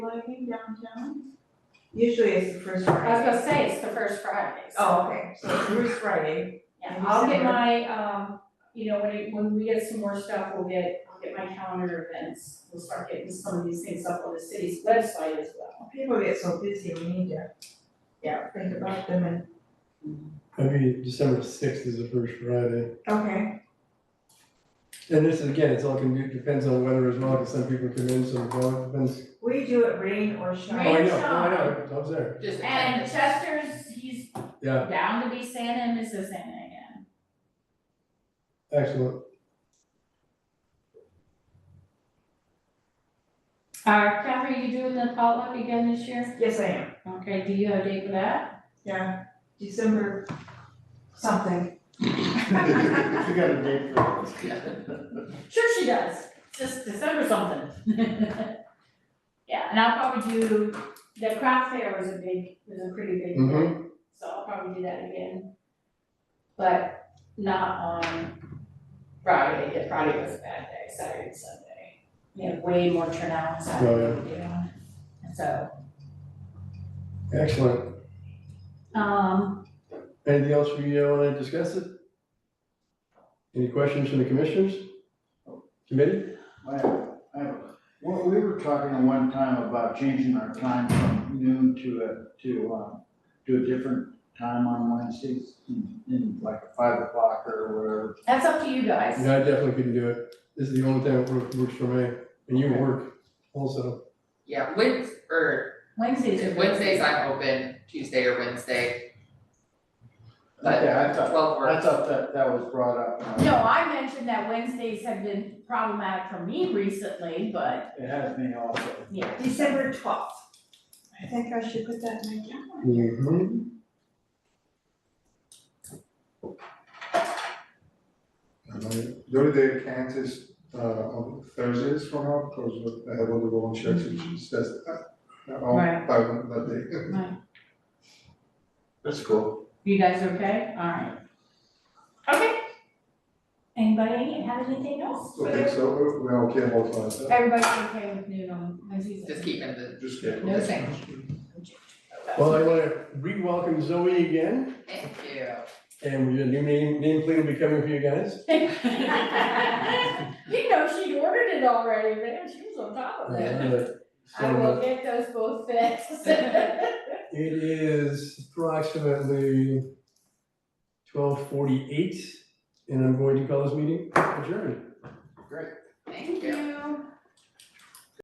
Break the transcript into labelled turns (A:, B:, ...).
A: lighting downtown? Usually it's the first
B: I was
A: Friday.
B: gonna say, it's the first Friday, so.
A: Oh, okay, so it's first Friday.
B: Yeah, I'll get my, um, you know, when it, when we get some more stuff, we'll get, I'll get my calendar events. We'll start getting some of these things up on the city's website as well.
A: People get so busy, we need to, yeah, think about them and,
C: I mean, December sixth is the first Friday,
A: okay,
C: and this is, again, it's all can do, depends on weather as well, because some people come in, some don't, depends.
A: we do it rain or
C: Oh,
A: shine.
C: I know, no, I know, I was there,
D: Just
B: And Chester's, he's
C: Yeah.
B: down to be Santa and Mrs. Santa again.
C: excellent,
B: Uh, Catherine, you doing the potluck again this year?
A: Yes, I am,
B: Okay, do you have a date for that?
A: yeah, December something.
E: You got a date for it.
B: Sure she does, just December something. Yeah, and I'll probably do, the craft fair was a big, was a pretty big thing.
C: Mhm.
B: So I'll probably do that again. But not on Friday, the Friday was a bad day, Saturday and Sunday. We had way more turnout on Saturday than we did on. And So,
C: excellent.
B: um,
C: Anything else we uh, wanna discuss it? Any questions from the commissioners? Committee?
E: I have- I have- Well, we were talking at one time about changing our time from noon to a, to, um, to a different time on Wednesdays, in, in like five o'clock or whatever.
B: that's up to you guys.
C: Yeah, I definitely couldn't do it, this is the only time it works, works for me, and you work also,
D: Yeah, Wed, or
B: Wednesdays are.
D: Wednesdays I'm open, Tuesday or Wednesday, but
E: Okay, I thought,
D: twelve
E: I
D: works.
E: thought that, that was brought up. and
B: No, I mentioned that Wednesdays have been problematic for me recently, but
E: It has me also.
B: yeah.
A: December twelfth. I think I should put that in my calendar.
C: Mhm.
F: And I- The only day I can't is uh on Thursdays from now, because I have all the volunteers, which says uh all
B: Right.
F: by one that day.
B: Right.
F: That's cool.
B: You guys okay? Alright. Okay. Anybody have anything else?
F: So I think so, we're okay about that,
B: Everybody's okay with noon on Wednesdays?
D: Just keeping the,
F: just get.
D: No thanks.
C: Well, I wanna re-welcome Zoe again,
D: thank you.
C: and your new name, nameplate will be coming for you guys.
B: You know, she ordered it already, man, she was on top of it.
C: Alright,
B: I will
C: So
B: get those both fixed.
C: it is approximately twelve forty-eight, and I'm going to call this meeting adjourned.
D: Thank
B: Thank
D: you.
B: you.